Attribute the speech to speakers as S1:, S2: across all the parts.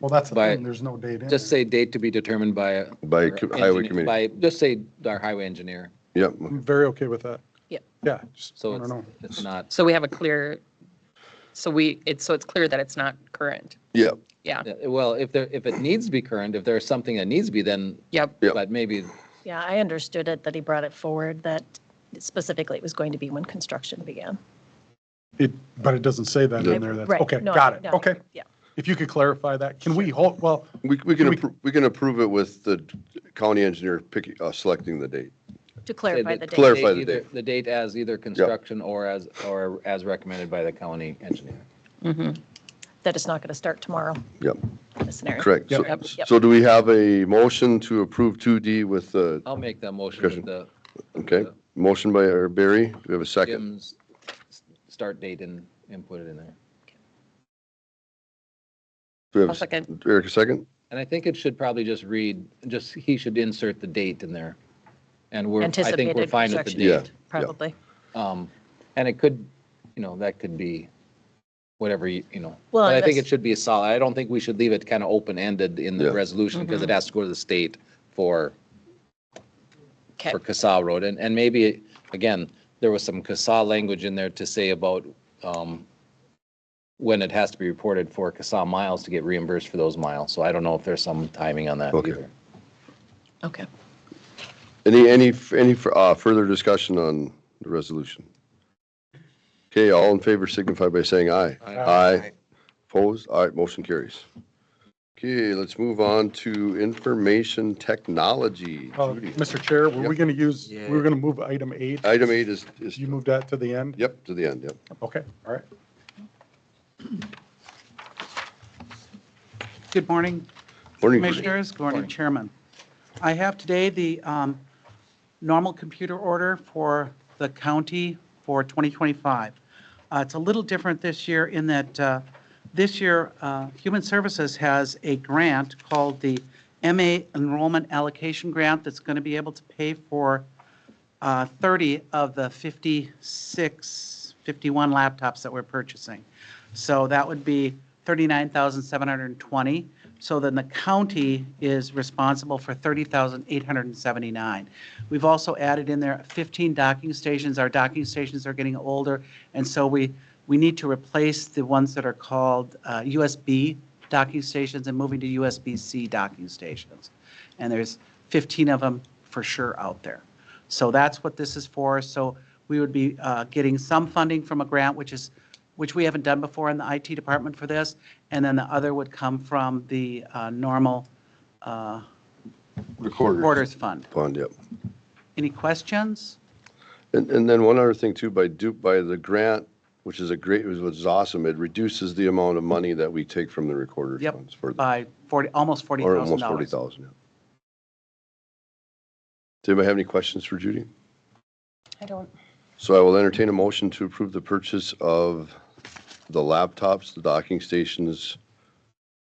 S1: Well, that's the
S2: By-
S1: thing, there's no date in
S2: Just
S1: there.
S2: say date to be determined by. a-
S3: By
S2: or
S3: co- highway
S2: engineer-
S3: committee.
S2: By, just say our highway engineer,
S3: Yep,
S1: I'm very okay with that.
S4: Yep.
S1: Yeah, just, I
S2: so
S1: don't
S2: it's,
S1: know.
S2: it's not,
S4: So we have a clear, so we, it's, so it's clear that it's not current.
S3: yep,
S4: Yeah,
S2: yeah, uh, well, if there, if it needs to be current, if there's something that needs to be, then,
S4: yep.
S3: Yep.
S2: but maybe,
S5: Yeah, I understood it, that he brought it forward, that specifically it was going to be when construction began.
S1: It, but it doesn't say that
S5: I-
S1: in there. That's,
S5: right,
S1: okay,
S5: no,
S1: got
S5: I-
S1: it.
S5: no,
S1: Okay.
S5: Yeah,
S1: If you could clarify that, can we hold, well,
S3: we, we can,
S1: We-
S3: appro- we can approve it with the county engineer picking, uh, selecting the date.
S5: to clarify the date.
S3: Clar- Clarify the
S2: either-
S3: date.
S2: the date as either construction or as, or as recommended by the county engineer.
S5: that it's not going to start tomorrow,
S3: Yep,
S5: in this scenario.
S3: correct. So-
S4: Yep. Yep.
S3: So do we have a motion to approve 2D with, uh,
S2: I'll make that motion with
S3: Discussion.
S2: the
S3: okay, motion by uh, Barry, do we have a second?
S2: Jim's s- start date and, and put it in there.
S3: Do we have
S4: I'll
S3: s-
S4: second.
S3: Eric, a second?
S2: And I think it should probably just read, just, he should insert the date in there. And we're, I think we're
S5: Anticipated
S2: fine with the
S5: construction
S2: date.
S3: Yeah.
S5: date, probably.
S2: Um, And it could, you know, that could be whatever, you you know.
S5: Well,
S2: But I think it
S5: that's-
S2: should be solid. I don't think we should leave it kind of open-ended in the
S3: Yeah.
S2: resolution because it
S5: Mm-hmm.
S2: has to go to the state for,
S4: Okay,
S2: for CASA road. And, and maybe, again, there was some CASA language in there to say about um, when it has to be reported for CASA miles to get reimbursed for those miles. So I don't know if there's some timing on that
S3: Okay.
S2: either.
S4: okay.
S3: Any, any, f- any f- uh, further discussion on the resolution? Okay, all in favor signify by saying aye.
S2: Uh,
S1: uh,
S3: Aye. Opposed? All right, motion carries. Okay, let's move on to information technology.
S1: uh,
S3: Judy.
S1: Mr. Chair, were we
S3: Yep.
S1: going to use, we were going to move item eight?
S3: Item eight is, is,
S1: You moved that to the end?
S3: yep, to the end, yep.
S1: Okay, all right.
S6: Good morning,
S3: Morning, Judy.
S6: Commissioners. Good morning, Chairman. I have today the um, normal computer order for the county for 2025. Uh, It's a little different this year in that uh, this year, uh, Human Services has a grant called the MA Enrollment Allocation Grant that's going to be able to pay for uh, 30 of the 56, 51 laptops that we're purchasing. So that would be 39,720. So then the county is responsible for 30,879. We've also added in there 15 docking stations. Our docking stations are getting older, and so we, we need to replace the ones that are called uh, USB docking stations and moving to USB-C docking stations. And there's 15 of them for sure out there. So that's what this is for. So we would be uh, getting some funding from a grant, which is, which we haven't done before in the IT department for this. And then the other would come from the uh, normal uh,
S3: Recorder.
S6: Recorder's Fund.
S3: Pond, yep.
S6: Any questions?
S3: And, and then one other thing too, by do, by the grant, which is a great, which was awesome, it reduces the amount of money that we take from the recorder
S6: Yep,
S3: funds for,
S6: By 40, almost
S3: or almost Uh, forty
S6: $40,000.
S3: thousand. Does anybody have any questions for Judy?
S5: I don't,
S3: So I will entertain a motion to approve the purchase of the laptops, the docking stations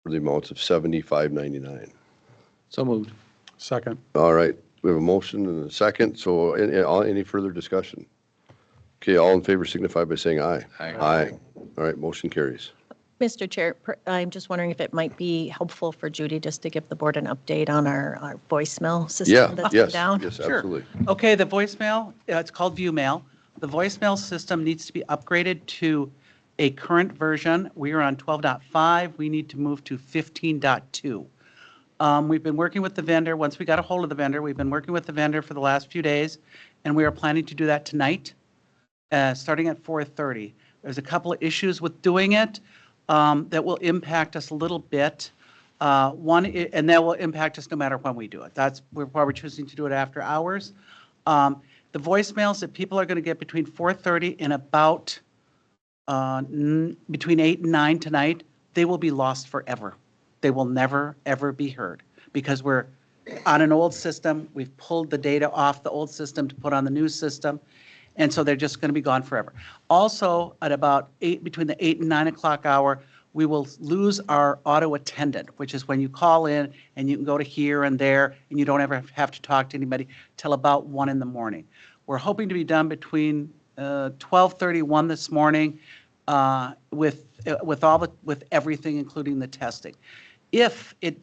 S3: for the amounts of seventy-five ninety-nine.
S2: So moved.
S1: Second.
S3: All right, we have a motion and a second, so any, all- any further discussion? Okay, all in favor signify by saying aye.
S2: Aye.
S3: Aye. All right, motion carries.
S5: Mr. Chair, per- I'm just wondering if it might be helpful for Judy just to give the board an update on our our voicemail
S3: Yeah,
S5: system that's been
S3: yes,
S5: down.
S3: yes,
S6: Sure.
S3: absolutely.
S6: Okay, the voicemail, uh, it's called ViewMail. The voicemail system needs to be upgraded to a current version. We are on 12.5. We need to move to 15.2. Um, We've been working with the vendor, once we got a hold of the vendor, we've been working with the vendor for the last few days, and we are planning to do that tonight, uh, starting at 4:30. There's a couple of issues with doing it um, that will impact us a little bit. Uh, One, i- and that will impact us no matter when we do it. That's why we're choosing to do it after hours. Um, The voicemails that people are going to get between 4:30 and about, uh, n- between 8 and 9 tonight, they will be lost forever. They will never, ever be heard because we're on an old system. We've pulled the data off the old system to put on the new system. And so they're just going to be gone forever. Also, at about 8, between the 8 and 9 o'clock hour, we will lose our auto attendant, which is when you call in and you can go to here and there and you don't ever have to talk to anybody till about 1 in the morning. We're hoping to be done between uh, 12:31 this morning uh, with, uh, with all the, with everything, including the testing. If it